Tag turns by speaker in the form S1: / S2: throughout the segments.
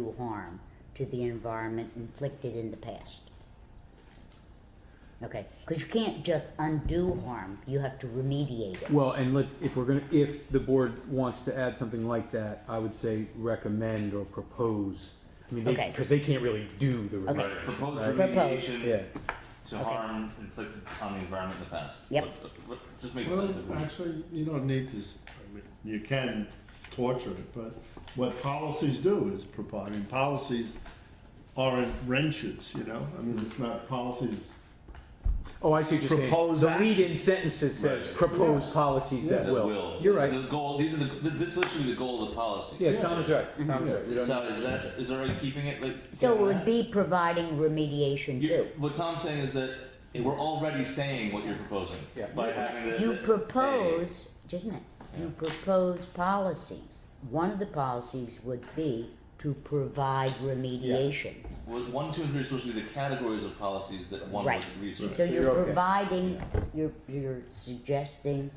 S1: do harm to the environment inflicted in the past. Okay, because you can't just undo harm, you have to remediate it.
S2: Well, and let, if we're gonna, if the board wants to add something like that, I would say recommend or propose. I mean, they,
S1: Okay.
S2: because they can't really do the.
S1: Okay.
S2: remediation.
S3: Right, proposed
S2: Right. Yeah,
S3: remediation to
S1: Okay.
S3: harm inflicted on the environment in the past.
S1: Yep.
S3: What- what- Just make
S4: Well,
S3: sense of it.
S4: actually, you don't need to, s- I mean, you can torture it, but what policies do is provide, I mean, policies aren't wrenches, you know? I mean, it's not policies,
S2: oh, I see what you're saying.
S4: Propose
S2: The lead
S4: action.
S2: in sentences says
S3: Right.
S2: propose policies that
S3: That
S2: will.
S3: will.
S2: You're right.
S3: The goal, these are the, th- this is literally the goal of the policy.
S2: Yeah, Tom is right,
S1: Mm-hmm.
S2: Tom is right. You don't-
S3: So is that, is already keeping it like?
S1: So it would
S3: Yeah.
S1: be providing remediation
S3: You-
S1: too.
S3: What Tom's saying is that we're already saying what you're proposing
S2: Yeah.
S3: by having the.
S1: You
S3: the- a-
S1: propose, isn't it? You
S3: Yeah.
S1: propose policies. One of the policies would be to provide remediation.
S3: was One, two, and three are supposed to be the categories of policies that one
S1: Right.
S3: would research.
S1: So
S2: So
S1: you're
S2: you're okay.
S1: providing, you're, you're suggesting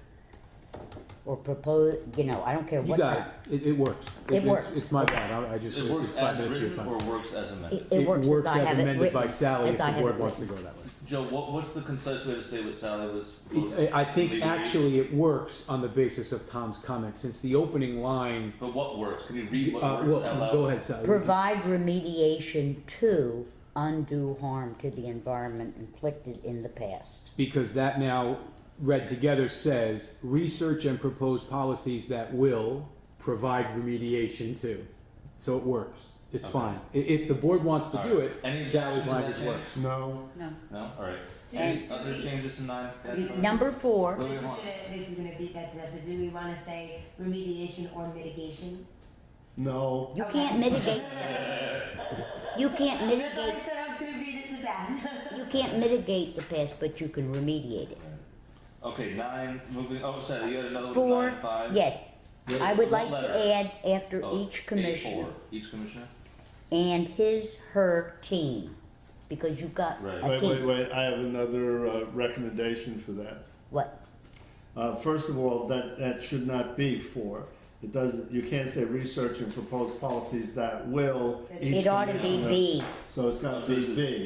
S1: or propose, you know, I don't care
S2: You
S1: what
S2: got
S1: type.
S2: it, it, it works.
S1: It
S2: it's-
S1: works.
S2: It's my bad, I, I just
S3: It works
S2: wasted five
S3: as
S2: minutes of your
S3: written or
S2: time.
S3: works as amended.
S1: It, it works as I have it written.
S2: amended by Sally
S1: as
S2: if
S1: I
S2: the
S1: have
S2: board
S1: it
S2: wants to
S1: written.
S2: go that way.
S3: Joe, what, what's the concise way to say what Sally was proposing?
S2: I I think
S3: Legal reason?
S2: actually it works on the basis of Tom's comment, since the opening line,
S3: But what works? Can you read
S2: uh,
S3: what works
S2: well,
S3: out loud?
S2: go ahead, Sally.
S1: Provide remediation to undue harm to the environment inflicted in the past.
S2: because that now read together says research and propose policies that will provide remediation to. So it works. It's fine. I- If the board wants to do it,
S3: Alright. Any
S2: Sally's
S3: objections to that
S2: language
S3: change?
S2: works.
S4: no,
S1: No.
S3: No, alright.
S5: Do
S3: Any
S5: we-
S3: other changes to nine dash five?
S1: Number four.
S3: Wait,
S5: This
S3: wait,
S5: is
S3: hold
S5: gonna,
S3: on.
S5: this is gonna be, that's, that's, but do we wanna say remediation or mitigation?
S4: no.
S1: You can't mitigate. You can't
S5: That's why
S1: mitigate,
S5: I said I was gonna beat it to death.
S1: you can't mitigate the past, but you can remediate it.
S3: Okay, nine, moving, oh, sorry, you had another one, for
S1: Four,
S3: nine, five?
S1: yes.
S3: Wait,
S1: I would
S3: what
S1: like to
S3: letter?
S1: add after
S3: Oh,
S1: each
S3: A4,
S1: commissioner
S3: Each commissioner?
S1: and his, her team, because you've got a
S3: Right.
S4: Wait, wait,
S1: team.
S4: wait, I have another uh, recommendation for that.
S1: What?
S4: Uh, first of all, that, that should not be for, it doesn't, you can't say research and propose policies that will each
S1: It ought to be
S4: commissioner-
S1: B. Mm-hmm.
S4: So it's gotta be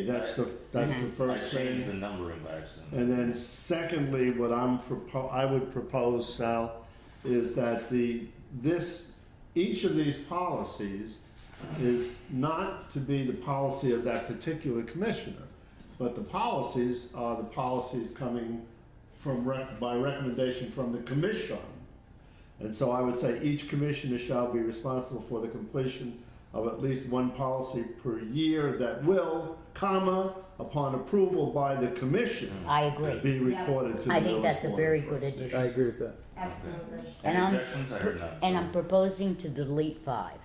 S4: B, that's the, that's the
S3: I
S4: first thing.
S3: changed the numbering by accident.
S4: And then secondly, what I'm propo- I would propose, Sal, is that the, this, each of these policies is not to be the policy of that particular commissioner, but the policies are the policies coming from, rec- by recommendation from the commission. And so I would say each commissioner shall be responsible for the completion of at least one policy per year that will, comma, upon approval by the commission,
S1: I agree.
S4: be reported to the.
S1: I think that's a
S4: village
S1: very
S4: board
S1: good
S4: of trustees.
S2: I
S1: addition.
S2: agree with that.
S5: Absolutely.
S1: And
S3: Any
S1: I'm-
S3: objections? I heard none.
S1: And I'm proposing to delete five.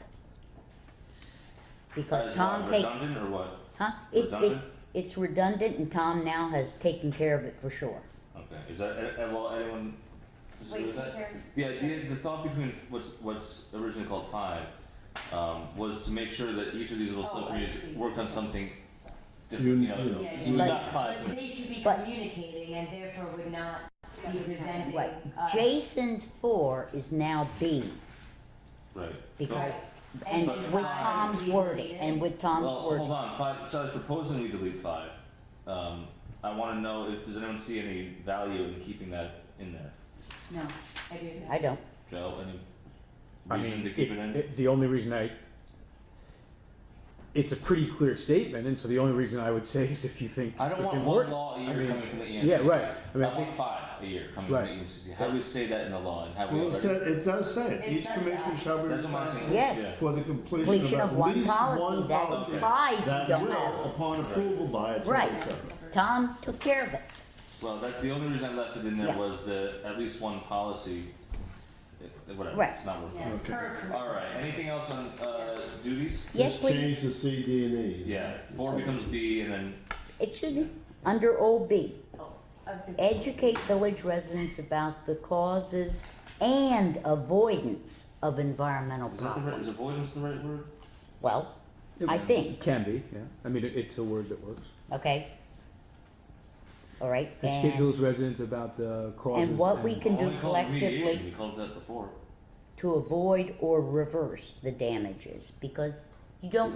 S1: Because
S3: Is
S1: Tom
S3: what,
S1: takes,
S3: Redundant or what?
S1: huh? It, it,
S3: redundant?
S1: it's redundant and Tom now has taken care of it for sure.
S3: Okay, is that, eh, eh, well, anyone disagree
S5: Wait,
S3: with that?
S5: Karen?
S3: The idea, the thought between what's, what's originally called five, um, was to make sure that each of these little
S5: Oh, I
S3: subcommittees
S5: see.
S3: worked on something
S4: You-
S3: different, you know,
S4: you know.
S5: Yeah,
S3: so
S1: yeah.
S3: not five.
S5: But they should be
S1: But-
S5: communicating and therefore would not be resenting
S1: Right.
S5: us.
S1: Jason's four is now B
S3: Right.
S1: because,
S5: Right.
S1: and
S3: But
S1: with
S3: five
S1: Tom's
S5: is
S1: wording,
S5: deleted.
S1: and with
S3: Well,
S1: Tom's
S3: hold
S1: wording.
S3: on, five, so I was proposing we delete five. Um, I wanna know if, does anyone see any value in keeping that in there?
S5: No, I do
S1: I
S5: not.
S1: don't.
S3: Joe, any
S2: I
S3: reason
S2: mean,
S3: to keep
S2: it-
S3: it in?
S2: it- the only reason I, it's a pretty clear statement, and so the only reason I would say is if you think
S3: I don't
S2: it's
S3: want one
S2: important.
S3: law a
S2: I
S3: year
S2: mean,
S3: coming from the E ENCC.
S2: yeah, right. I
S3: I,
S2: mean, I
S3: want five a year coming
S2: Right.
S3: from the E ENCC. How do we say that in the law and how do we
S4: Well, it
S3: already-
S4: said, it does say, it.
S5: It
S4: each
S5: says
S4: commissioner
S5: that.
S4: shall be
S3: That's what I'm
S4: responsible
S3: saying.
S1: Yes.
S4: for the completion
S1: Completion
S4: of
S1: of
S4: at
S1: one
S4: least
S1: policy,
S4: one
S1: that
S4: policy.
S1: implies you don't
S4: That
S1: have-
S4: will, upon approval by its
S1: Right.
S4: officer.
S1: Tom took care of it.
S3: Well, that, the only reason I left it in there
S1: Yeah.
S3: was the at least one policy. eh, Whatever.
S1: Right.
S3: It's not worth
S5: Yeah, it's
S4: Okay.
S5: her commission.
S3: All right. Anything else on uh,
S5: Yes.
S3: duties?
S1: Yes,
S4: Just
S1: please.
S4: Change the C, D, and E.
S3: Yeah.
S4: It's
S3: Four
S4: all-
S3: becomes B, and then
S1: It shouldn't. Under old B,
S5: Oh, I was gonna say-
S1: educate village residents about the causes and avoidance of environmental
S3: is, that the right,
S1: problems.
S3: is avoidance the right word?
S1: Well, I think,
S2: Can be, yeah. I mean, it- it's a word that works.
S1: okay? All right,
S2: Educate
S1: and
S2: those residents about the causes.
S1: what we can
S3: Well,
S1: do
S3: we call it
S1: collectively-
S3: remediation. We called it that before.
S1: to avoid or reverse the damages, because You don't